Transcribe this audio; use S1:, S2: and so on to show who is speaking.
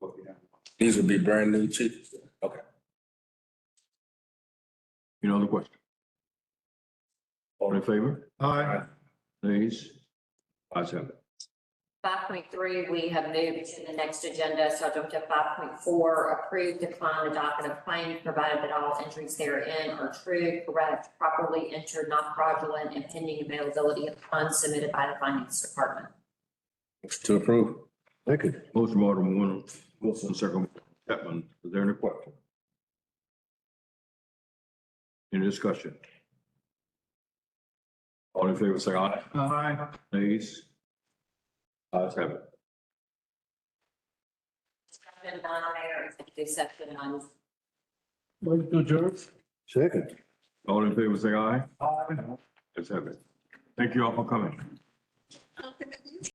S1: These would be brand new chickens.
S2: You know the question. All in favor?
S3: Aye.
S2: Please. Ayes have it.
S4: Five point three, we have moved to the next agenda, subject to five point four, approve, decline the docket of claims, provided that all entries therein are true, correct, properly entered, not fraudulent, and pending availability of funds submitted by the finance department.
S1: Motion To approve.
S2: Second. Motion by Alderman Warner, Wilson, second by Chapman. Is there any question? Any discussion? All in favor, say aye.
S3: Aye.
S2: Please. Ayes have it.
S4: Seven, nine, Mayor, executive session on
S3: Move to adjourn.
S2: Second. All in favor, say aye.
S3: Aye.
S2: Ayes have it. Thank you all for coming.
S5: Councilman